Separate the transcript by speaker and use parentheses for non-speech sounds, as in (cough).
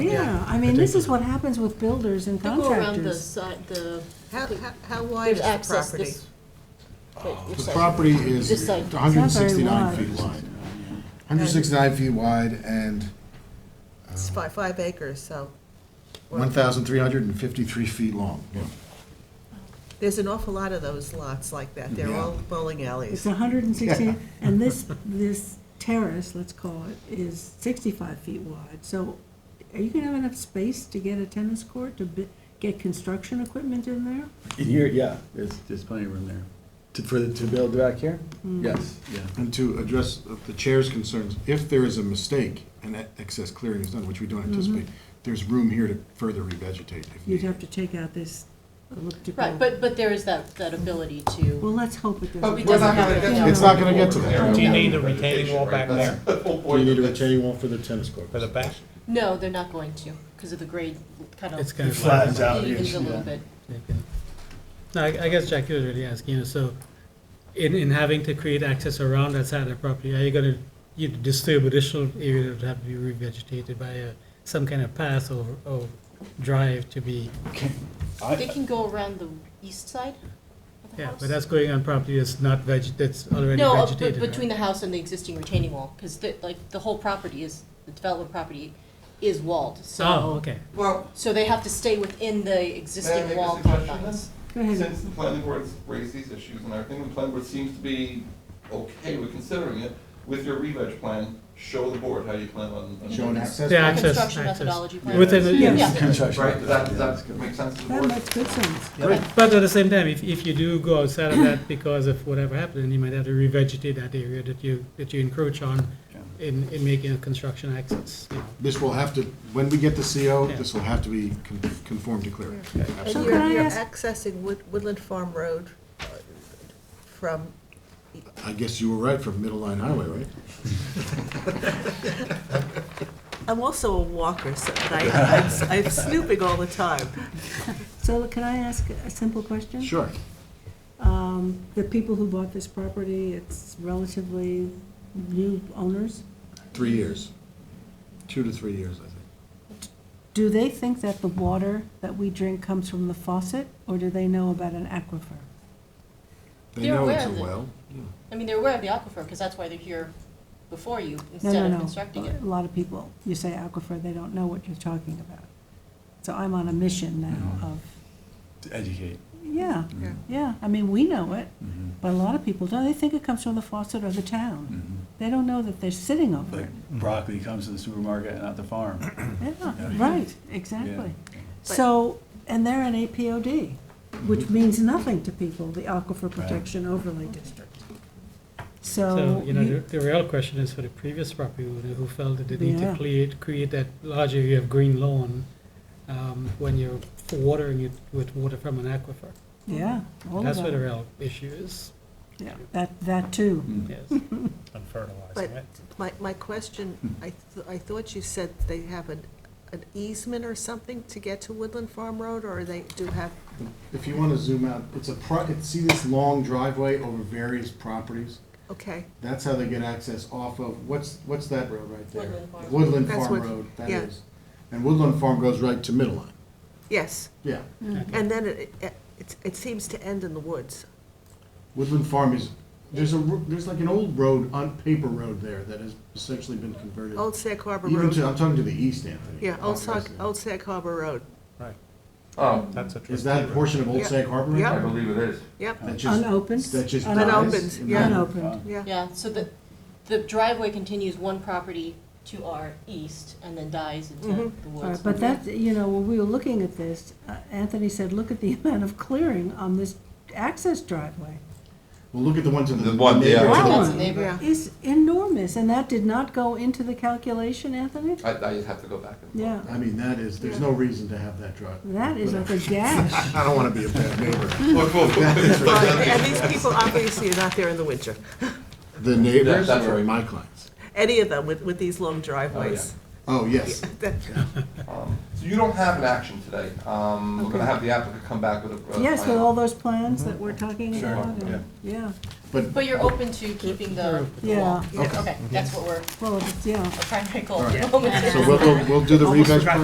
Speaker 1: Yeah, I mean, this is what happens with builders and
Speaker 2: They go around the
Speaker 1: contractors.
Speaker 2: side, the,
Speaker 3: How, how- how wide
Speaker 2: there's
Speaker 3: is the
Speaker 2: access
Speaker 3: property?
Speaker 2: this. wait, which
Speaker 4: The
Speaker 2: side?
Speaker 4: property
Speaker 2: This
Speaker 4: is
Speaker 2: side.
Speaker 1: It's not very
Speaker 4: 169
Speaker 1: wide.
Speaker 4: feet wide. 169 feet wide and
Speaker 3: It's five, five acres, so. well,
Speaker 4: 1,353 feet long.
Speaker 3: There's an awful lot of those lots like that. They're all
Speaker 4: Yeah.
Speaker 3: bowling
Speaker 1: It's
Speaker 4: (laughs)
Speaker 3: alleys.
Speaker 1: hundred and sixty, and this, this terrace, let's call it, is sixty-five feet wide, so are you gonna have enough space to get a tennis court, to bi- get construction equipment in there?
Speaker 5: In here, yeah, there's, there's plenty of room there. To, for the, to build back here? Yes, yeah.
Speaker 4: And to address the chair's concerns, if there is a mistake and that excess clearing is done, which we don't
Speaker 1: Mm-hmm.
Speaker 4: anticipate, there's room here to further revegetate if
Speaker 1: You'd have
Speaker 4: needed.
Speaker 1: to take out this elliptical.
Speaker 2: Right, but, but there is that, that ability
Speaker 1: Well,
Speaker 2: to,
Speaker 1: let's hope it
Speaker 2: But we
Speaker 1: doesn't.
Speaker 2: We're not gonna get to
Speaker 4: It's not going to get to there.
Speaker 6: Do you need a retaining wall back there
Speaker 4: Do you need a retaining wall for the tennis court?
Speaker 6: for the back?
Speaker 2: no, they're not going to, because of the grade kind of.
Speaker 7: It's kind of
Speaker 5: flattens out,
Speaker 2: Is
Speaker 5: yes,
Speaker 2: a little
Speaker 5: yeah.
Speaker 2: bit.
Speaker 7: Okay. No, I, I guess Jackie was really asking, you know, so in, in having to create access around that side of the property, are you gonna, you disturb additional area that would have to be revegetated by a, some kind of path or, or drive to be,
Speaker 2: They can go around the east side of the
Speaker 7: yeah,
Speaker 2: house.
Speaker 7: but that's going on property that's not veg, that's already
Speaker 2: No, uh, but
Speaker 7: vegetated,
Speaker 2: between
Speaker 7: right?
Speaker 2: the house and the existing retaining wall, because the, like, the whole property is, the development property is walled, so.
Speaker 7: Oh, okay.
Speaker 8: Well,
Speaker 2: So they have to stay within the
Speaker 8: may I
Speaker 2: existing
Speaker 8: make a
Speaker 2: wall
Speaker 8: suggestion
Speaker 2: confines.
Speaker 1: Go
Speaker 8: then?
Speaker 1: ahead.
Speaker 8: Since the planning board's raised these issues and everything, the planning board seems to be okay with considering it. With your re-veg plan, show the board how you plan on. on
Speaker 4: Show
Speaker 8: doing
Speaker 4: an
Speaker 8: it.
Speaker 4: access.
Speaker 7: The
Speaker 4: point?
Speaker 7: access,
Speaker 2: Construction
Speaker 7: access.
Speaker 2: methodology plan.
Speaker 7: Within, the-
Speaker 1: Yeah.
Speaker 7: yes.
Speaker 5: Construction.
Speaker 8: Right, does that, does that make sense to the
Speaker 1: That
Speaker 8: board?
Speaker 1: makes good sense.
Speaker 7: But at the same time, if, if you do go outside of that because of whatever happened, then you might have to revegetate that area that you, that you encroach on in, in making a construction access, you know.
Speaker 4: This will have to, when we get the CO,
Speaker 7: Yeah.
Speaker 4: this will have to be con- conformed to clearing.
Speaker 3: And
Speaker 1: So
Speaker 3: you're,
Speaker 1: can I
Speaker 3: you're
Speaker 1: ask-
Speaker 3: accessing Wood- Woodland Farm Road uh, from,
Speaker 4: I guess you were right from Middle Line Highway, right?
Speaker 3: I'm also a walker, (laughs) so I, I'm- I'm snooping all the time.
Speaker 1: So can I ask a simple question?
Speaker 4: Sure.
Speaker 1: Um, The people who bought this property, it's relatively new owners.
Speaker 4: Three years. Two to three years, I think.
Speaker 1: Do they think that the water that we drink comes from the faucet, or do they know about an aquifer?
Speaker 4: They
Speaker 2: They're
Speaker 4: know
Speaker 2: aware
Speaker 4: it's a
Speaker 2: of it.
Speaker 4: well.
Speaker 2: I mean, they're aware of the aquifer, because that's why they're here before you,
Speaker 1: No,
Speaker 2: instead
Speaker 1: no,
Speaker 2: of
Speaker 1: no.
Speaker 2: constructing it.
Speaker 1: A lot of people, you say aquifer, they don't know what you're talking about. So I'm on a mission now of,
Speaker 5: To educate.
Speaker 1: yeah,
Speaker 3: Yeah.
Speaker 1: yeah, I mean, we know it,
Speaker 5: Mhm.
Speaker 1: but a lot of people don't. They think it comes from the faucet or the town.
Speaker 5: Mhm.
Speaker 1: They don't know that they're sitting over
Speaker 5: Like
Speaker 1: it.
Speaker 5: broccoli comes to the supermarket and not the farm.
Speaker 1: Yeah,
Speaker 5: Yeah.
Speaker 1: right, exactly. So, and they're an APOD, which means nothing to people, the Aquifer Protection Overlay District. So,
Speaker 7: So, you know, the,
Speaker 1: you-
Speaker 7: the real question is for the previous property owner who felt that they need
Speaker 1: Yeah.
Speaker 7: to create, create that large area of green lawn, um, when you're watering it with water from an aquifer.
Speaker 1: yeah, all of
Speaker 7: That's where the
Speaker 1: that,
Speaker 7: real issue is,
Speaker 1: yeah, that, that too. (laughs)
Speaker 7: yes.
Speaker 6: I'm
Speaker 3: But
Speaker 6: fertilizing it.
Speaker 3: my, my question, I, th- I thought you said they have an, an easement or something to get to Woodland Farm Road, or they do have,
Speaker 4: If you want to zoom out, it's a, pro- it's- see this long driveway over various properties?
Speaker 3: okay.
Speaker 4: That's how they get access off of, what's, what's that road right there?
Speaker 2: Woodland Farm.
Speaker 4: Woodland
Speaker 3: That's
Speaker 4: Farm
Speaker 3: what-
Speaker 4: Road, that
Speaker 3: yeah.
Speaker 4: is. And Woodland Farm goes right to Middle Line.
Speaker 3: Yes,
Speaker 4: Yeah.
Speaker 3: and then it, it- it, it seems to end in the woods.
Speaker 4: Woodland Farm is, there's a, ro- there's like an old road, on paper road there that has essentially been converted.
Speaker 3: Old Sag Harbor
Speaker 4: Even to,
Speaker 3: Road.
Speaker 4: I'm talking to the east, Anthony.
Speaker 3: Yeah,
Speaker 4: not
Speaker 3: Old
Speaker 4: west
Speaker 3: Sag,
Speaker 4: Anthony.
Speaker 3: Old Sag Harbor Road.
Speaker 6: Right,
Speaker 8: Um,
Speaker 6: that's a.
Speaker 4: Is that a
Speaker 6: tricky-
Speaker 4: portion of Old
Speaker 3: Yeah.
Speaker 4: Sag Harbor?
Speaker 8: I
Speaker 3: Yeah.
Speaker 8: believe it is.
Speaker 3: Yep,
Speaker 4: That just-
Speaker 1: Unopened.
Speaker 4: That just
Speaker 1: unopened,
Speaker 4: dies
Speaker 3: Unopened,
Speaker 4: in
Speaker 3: yeah.
Speaker 4: the-
Speaker 1: Unopened,
Speaker 3: yeah.
Speaker 2: Yeah, so the, the driveway continues one property to our east and then dies into
Speaker 3: Mhm.
Speaker 2: the
Speaker 1: All right,
Speaker 2: woods.
Speaker 1: But that, you know, when we were looking at this, uh, Anthony said, look at the (laughs) amount of clearing on this access driveway.
Speaker 4: Well, look at the ones in the.
Speaker 8: The one, yeah.
Speaker 4: neighborhood.
Speaker 1: Wow.
Speaker 2: That's a neighbor.
Speaker 3: Yeah.
Speaker 1: It's enormous, and that did not go into the calculation, Anthony?
Speaker 8: I, I just have to go back and. forth.
Speaker 1: Yeah,
Speaker 4: I mean, that is, there's no reason to have that drive.
Speaker 1: that is like a gash.
Speaker 4: (laughs) I don't want to be a bad neighbor.
Speaker 8: Look, look, look.
Speaker 3: Well, And these people obviously are not there in the winter,
Speaker 4: The neighbors
Speaker 8: Yeah, that's
Speaker 4: or
Speaker 8: right.
Speaker 4: my clients?
Speaker 3: any of them with, with these long driveways.
Speaker 1: (laughs)
Speaker 4: Oh, yes.
Speaker 8: (laughs) Um, So you don't have an action today. Um, we're gonna have the applicant come back with a. a
Speaker 1: Yes, with
Speaker 8: final-
Speaker 1: all those plans that we're talking
Speaker 8: Sure.
Speaker 1: about, and-
Speaker 8: Yeah.
Speaker 1: yeah,
Speaker 4: But,
Speaker 2: But you're open to keeping the, the
Speaker 1: yeah,
Speaker 2: wall?
Speaker 3: Yeah.
Speaker 2: Okay, that's what we're,
Speaker 1: well, it's- yeah.
Speaker 2: our primary goal.
Speaker 4: All right.
Speaker 2: at the (laughs) moment.
Speaker 4: so we'll, go- we'll do the
Speaker 6: Almost
Speaker 4: revege
Speaker 6: forgot